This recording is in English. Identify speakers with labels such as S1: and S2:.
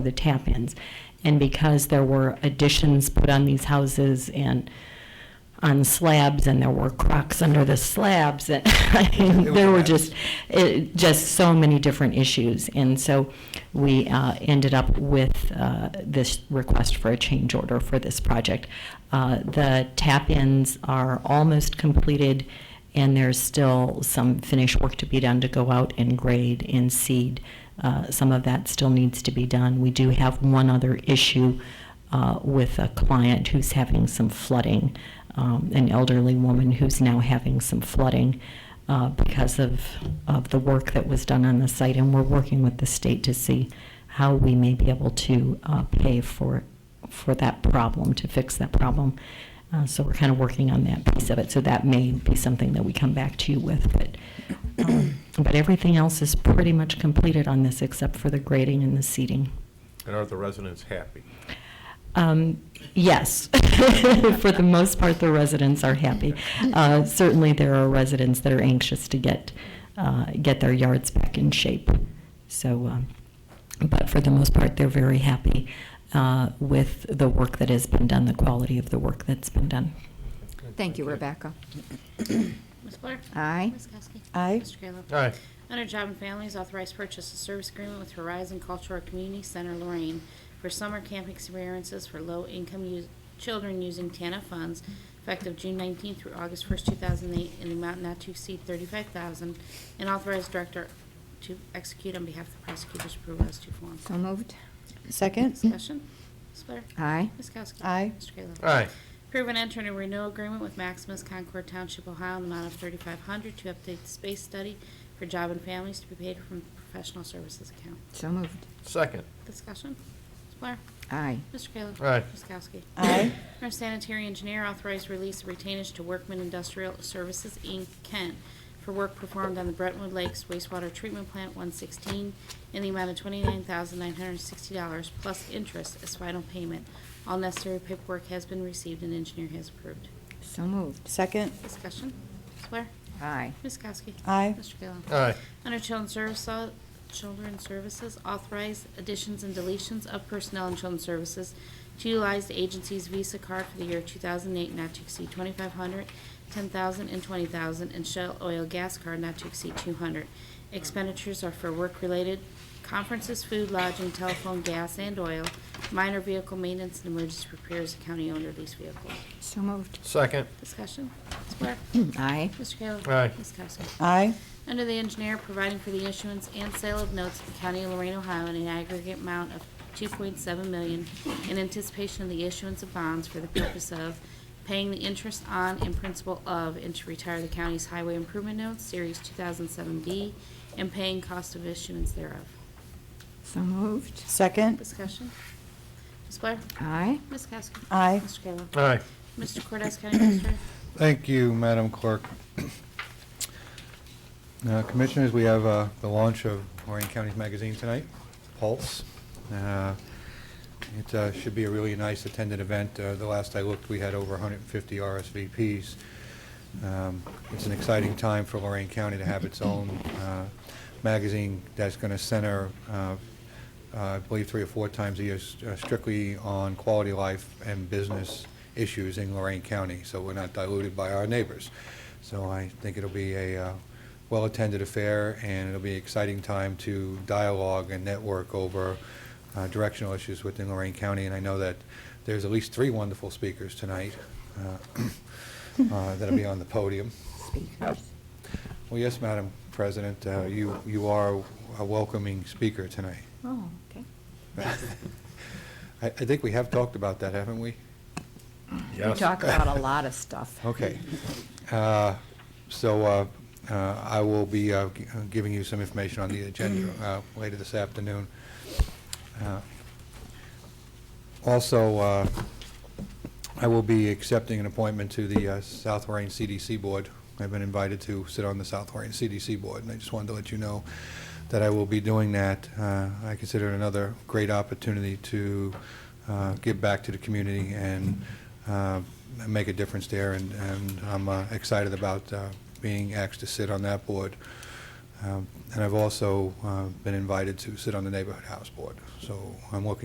S1: the tap-ins. And because there were additions put on these houses and on slabs, and there were crocks under the slabs, and I mean, there were just, it, just so many different issues. And so we uh, ended up with uh, this request for a change order for this project. Uh, The tap-ins are almost completed, and there's still some finish work to be done to go out and grade and seed. Uh, Some of that still needs to be done. We do have one other issue uh, with a client who's having some flooding, um, an elderly woman who's now having some flooding uh, because of, of the work that was done on the site. And we're working with the state to see how we may be able to uh, pay for, for that problem, to fix that problem. Uh, So we're kind of working on that piece of it, so that may be something that we come back to you with. But, um, but everything else is pretty much completed on this except for the grading and the seating.
S2: And are the residents happy?
S1: Um, Yes, for the most part, the residents are happy. Uh, Certainly, there are residents that are anxious to get, uh, get their yards back in shape. So, um, but for the most part, they're very happy uh, with the work that has been done, the quality of the work that's been done.
S3: Thank you, Rebecca.
S4: Ms. Blair?
S3: Aye.
S4: Ms. Kowski?
S3: Aye.
S4: Mr. Kayla?
S2: Aye.
S4: Under Job and Families, authorized purchase of service agreement with Horizon Cultural Community Center Lorraine for summer camp experiences for low-income us- children using TANA funds effective June 19th through August 1st, 2008, in the amount not to exceed 35000 and authorized director to execute on behalf of the prosecutor's approval as to form.
S3: So moved.
S5: Second?
S4: Discussion? Ms. Blair?
S3: Aye.
S4: Ms. Kowski?
S5: Aye.
S4: Mr. Kayla?
S2: Aye.
S4: Approve and enter a renewal agreement with Maximus Concord Township, Ohio, in the amount of $3,500 to update the space study for job and families to be paid from professional services account.
S3: So moved.
S2: Second.
S4: Discussion? Ms. Blair?
S3: Aye.
S4: Mr. Kayla?
S2: Aye.
S4: Ms. Kowski?
S5: Aye.
S4: Our sanitary engineer authorized release of retainage to Workman Industrial Services, Inc., Kent, for work performed on the Brentwood Lakes wastewater treatment plant 116 in the amount of $29,960 plus interest as final payment. All necessary paperwork has been received and engineer has approved.
S3: So moved.
S5: Second?
S4: Discussion. Ms. Blair?
S3: Aye.
S4: Ms. Kowski?
S5: Aye.
S4: Mr. Kayla?
S2: Aye.
S4: Under Children's Services, Children's Services, authorize additions and deletions of personnel in Children's Services to utilize the agency's Visa card for the year 2008 not to exceed 2,500, 10,000, and 20,000, and Shell Oil Gas Card not to exceed 200. Expenditures are for work-related conferences, food, lodging, telephone, gas, and oil, minor vehicle maintenance, and emergency repairs of county-owned or leased vehicles.
S3: So moved.
S2: Second.
S4: Discussion. Ms. Blair?
S3: Aye.
S4: Mr. Kayla?
S2: Aye.
S4: Ms. Kowski?
S5: Aye.
S4: Under the engineer, providing for the issuance and sale of notes of the County of Lorraine, Ohio in an aggregate amount of 2.7 million in anticipation of the issuance of bonds for the purpose of paying the interest on and principal of and to retire the county's highway improvement notes, Series 2007D, and paying cost of issuance thereof.
S3: So moved.
S5: Second?
S4: Discussion? Ms. Blair?
S3: Aye.
S4: Ms. Kowski?
S5: Aye.
S4: Mr. Kayla?
S2: Aye.
S4: Mr. Cordez, County Administrator?
S6: Thank you, Madam Clerk. Uh, Commissioners, we have uh, the launch of Lorraine County's magazine tonight, Pulse. Uh, It uh, should be a really nice attended event. Uh, The last I looked, we had over 150 RSVPs. Um, It's an exciting time for Lorraine County to have its own uh, magazine that's going to center, uh, uh, I believe, three or four times a year s- uh, strictly on quality of life and business issues in Lorraine County, so we're not diluted by our neighbors. So I think it'll be a uh, well-attended affair, and it'll be an exciting time to dialogue and network over uh, directional issues within Lorraine County, and I know that there's at least three wonderful speakers tonight uh, uh, that'll be on the podium.
S3: Speakers.
S6: Well, yes, Madam President, uh, you you are a welcoming speaker tonight.
S3: Oh, okay.
S6: I I think we have talked about that, haven't we?
S3: We talk about a lot of stuff.
S6: Okay. Uh, So uh, uh, I will be uh, gi- uh, giving you some information on the agenda uh, later this afternoon. Uh, Also, uh, I will be accepting an appointment to the uh, South Lorraine CDC Board. I've been invited to sit on the South Lorraine CDC Board, and I just wanted to let you know that I will be doing that. Uh, I consider it another great opportunity to uh, give back to the community and uh, make a difference there, and and I'm uh, excited about uh, being asked to sit on that board. Um, And I've also uh, been invited to sit on the Neighborhood House Board, so I'm looking